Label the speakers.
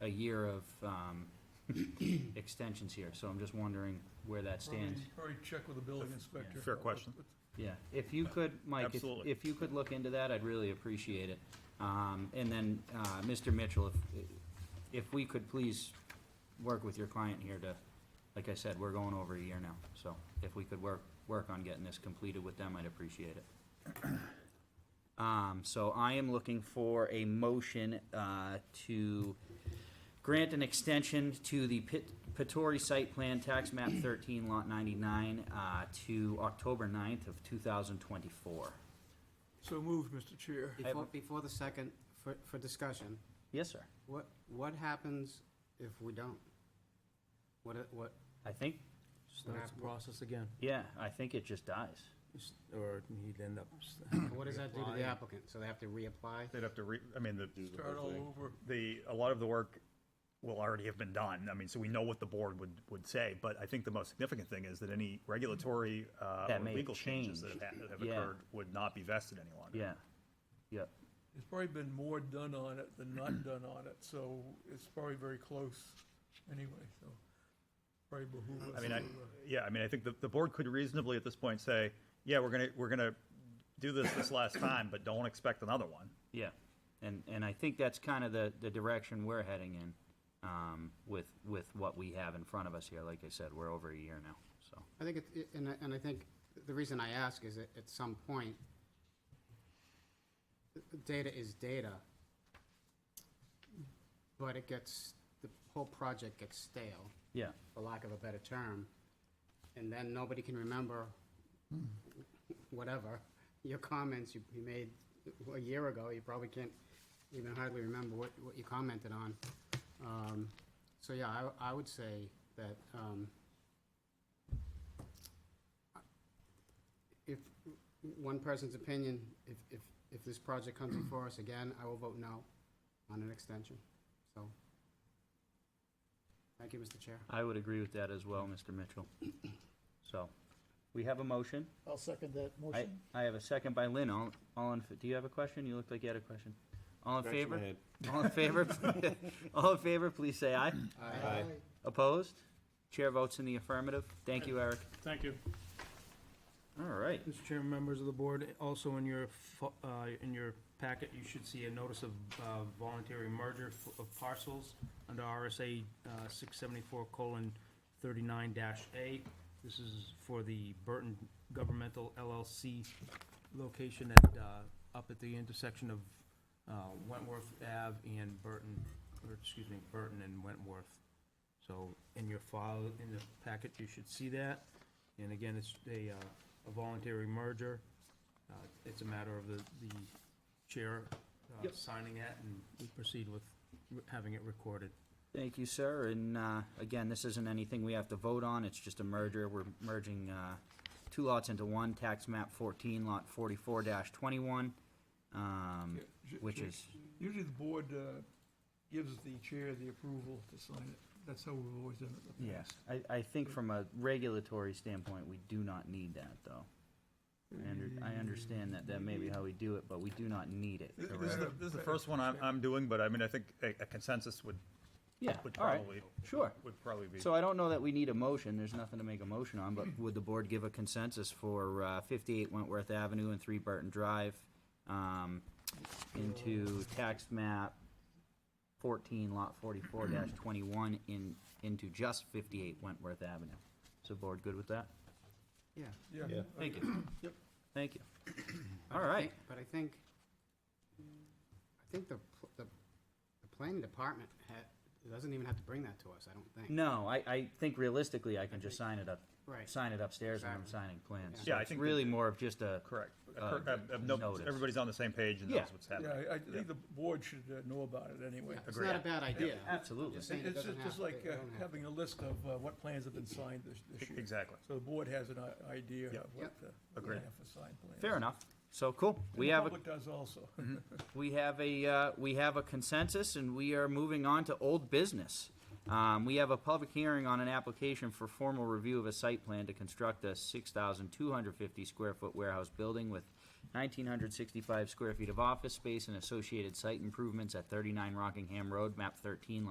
Speaker 1: a year of um, extensions here, so I'm just wondering where that stands.
Speaker 2: Probably- Probably check with the building inspector.
Speaker 3: Fair question.
Speaker 1: Yeah, if you could, Mike, if,
Speaker 3: Absolutely.
Speaker 1: if you could look into that, I'd really appreciate it. Um, and then, uh, Mr. Mitchell, if, if we could please work with your client here to, like I said, we're going over a year now, so if we could work, work on getting this completed with them, I'd appreciate it. Um, so I am looking for a motion, uh, to grant an extension to the Pit- Pittori Site Plan Tax Map 13, Lot 99, uh, to October 9th of 2024.
Speaker 2: So moved, Mr. Chair.
Speaker 4: Before, before the second, for, for discussion,
Speaker 1: Yes, sir.
Speaker 4: what, what happens if we don't? What, it- what,
Speaker 1: I think,
Speaker 5: Starts the process again,
Speaker 1: yeah, I think it just dies.
Speaker 5: s- or he'd end up. s-
Speaker 4: what does that do to the
Speaker 5: reapplying.
Speaker 4: applicant? So they have to reapply?
Speaker 3: They'd have to re, I mean, the,
Speaker 2: Start all over.
Speaker 3: the, a lot of the work will already have been done. I mean, so we know what the board would, would say, but I think the most significant thing is that any regulatory, uh,
Speaker 1: That
Speaker 3: or
Speaker 1: may have
Speaker 3: legal changes that
Speaker 1: changed.
Speaker 3: have have
Speaker 1: Yeah.
Speaker 3: occurred would not be vested any longer.
Speaker 1: Yeah. Yep.
Speaker 2: There's probably been more done on it than not done on it, so it's probably very close anyway, so. Probably behoove us.
Speaker 3: I mean, I,
Speaker 2: to, uh,
Speaker 3: yeah, I mean, I think the, the board could reasonably at this point say, yeah, we're gonna, we're gonna do this this last time, but don't expect another one.
Speaker 1: Yeah. And, and I think that's kind of the, the direction we're heading in um, with, with what we have in front of us here. Like I said, we're over a year now, so.
Speaker 4: I think it- it, and I, and I think the reason I ask is that at some point, data is data, but it gets, the whole project gets stale.
Speaker 1: Yeah.
Speaker 4: for lack of a better term, and then nobody can remember whatever, your comments you you made a year ago, you probably can't even hardly remember what, what you commented on. Um, So, yeah, I, I would say that, um, if, one person's opinion, if, if, if this project comes before us again, I will vote no on an extension, so. Thank you, Mr. Chair.
Speaker 1: I would agree with that as well, Mr. Mitchell. So, we have a motion.
Speaker 6: I'll second that
Speaker 1: I,
Speaker 6: motion.
Speaker 1: I have a second by Lynn. All, all in, fa- do you have a question? You looked like you had a question. All in favor? All in favor? All in favor, please say aye.
Speaker 6: Aye.
Speaker 1: Opposed? Chair votes in the affirmative. Thank you, Eric.
Speaker 7: Thank you.
Speaker 1: All right.
Speaker 5: Mr. Chairman, members of the board, also in your, fo- uh, in your packet, you should see a notice of uh, voluntary merger f- of parcels under RSA uh, six seventy-four colon thirty-nine dash A. This is for the Burton Governmental LLC location at, uh, up at the intersection of uh, Wentworth Ave and Burton, or excuse me, Burton and Wentworth. So in your file, in the packet, you should see that. And again, it's a, uh, a voluntary merger. Uh, It's a matter of the, the chair uh,
Speaker 1: Yep.
Speaker 5: signing that and we proceed with re- having it recorded.
Speaker 1: Thank you, sir. And, uh, again, this isn't anything we have to vote on. It's just a merger. We're merging, uh, two lots into one, tax map fourteen, lot forty-four twenty-one. Um,
Speaker 2: yeah,
Speaker 3: Mm,
Speaker 2: J-
Speaker 1: which
Speaker 2: Jay,
Speaker 1: is,
Speaker 2: Usually the board uh, gives the chair the approval to sign it. That's how we've always done it in the
Speaker 1: Yes,
Speaker 2: past.
Speaker 1: I, I think from a regulatory standpoint, we do not need that, though. I under- I understand that that may be how we do it, but we do not need it,
Speaker 2: Th-
Speaker 3: This is the,
Speaker 1: correct?
Speaker 3: this is the first one I'm, I'm doing, but I mean, I think a a consensus would,
Speaker 1: Yeah,
Speaker 3: would
Speaker 1: all right,
Speaker 3: probably,
Speaker 1: sure.
Speaker 3: would probably be.
Speaker 1: So I don't know that we need a motion, there's nothing to make a motion on, but would the board give a consensus for uh, 58 Wentworth Avenue and 3 Burton Drive um, into tax map 14, lot 44-21 in, into just 58 Wentworth Avenue? Is the board good with that?
Speaker 4: Yeah.
Speaker 2: Yeah.
Speaker 1: Thank you. Yep. Thank you. All right.
Speaker 4: But I think, I think the, pl- the, the planning department ha doesn't even have to bring that to us, I don't think.
Speaker 1: No, I, I think realistically, I can just sign it up.
Speaker 4: Right.
Speaker 1: Sign it upstairs when I'm
Speaker 4: Exactly.
Speaker 1: signing plans.
Speaker 3: Yeah, I
Speaker 1: It's
Speaker 3: think
Speaker 1: really
Speaker 3: that-
Speaker 1: more of just a.
Speaker 3: Correct. A
Speaker 1: Uh,
Speaker 3: cor- a- a no-
Speaker 1: notice.
Speaker 3: Everybody's on the same page and
Speaker 1: Yeah.
Speaker 3: knows what's
Speaker 2: Yeah,
Speaker 3: happening.
Speaker 2: I- I think the board should uh, know about it anyway.
Speaker 4: Yeah, It's
Speaker 3: Agree.
Speaker 4: not a bad idea.
Speaker 1: Absolutely.
Speaker 4: Just saying it
Speaker 2: It's
Speaker 4: doesn't
Speaker 2: just- just
Speaker 4: have-
Speaker 2: like
Speaker 4: they- they
Speaker 2: uh,
Speaker 4: don't have
Speaker 2: having a list of uh, what plans have been signed this this year.
Speaker 3: Exactly.
Speaker 2: So the board has an i- idea of what
Speaker 4: Yep.
Speaker 2: the,
Speaker 3: Agreed.
Speaker 2: what the signed plans.
Speaker 1: Fair enough. So, cool.
Speaker 2: And
Speaker 1: We
Speaker 2: the
Speaker 1: have, a
Speaker 2: public does also.
Speaker 1: we have a, uh, we have a consensus and we are moving on to old business. Um, we have a public hearing on an application for formal review of a site plan to construct a six thousand two hundred fifty square foot warehouse building with nineteen hundred sixty-five square feet of office space and associated site improvements at thirty-nine Rockingham Road, map thirteen,